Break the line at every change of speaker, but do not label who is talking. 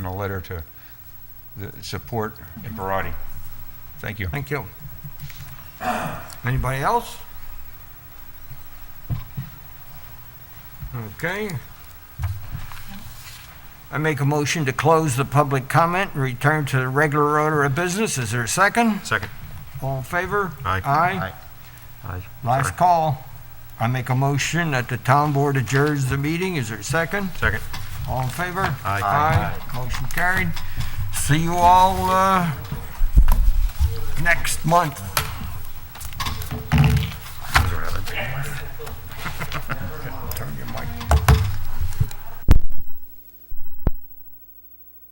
a letter to the support Imparati. Thank you.
Thank you. Anybody else? Okay. I make a motion to close the public comment and return to the regular order of business. Is there a second?
Second.
All in favor?
Aye.
Aye.
Aye.
Last call. I make a motion that the town board adjourns the meeting. Is there a second?
Second.
All in favor?
Aye.
Aye. Motion carried. See you all, uh, next month.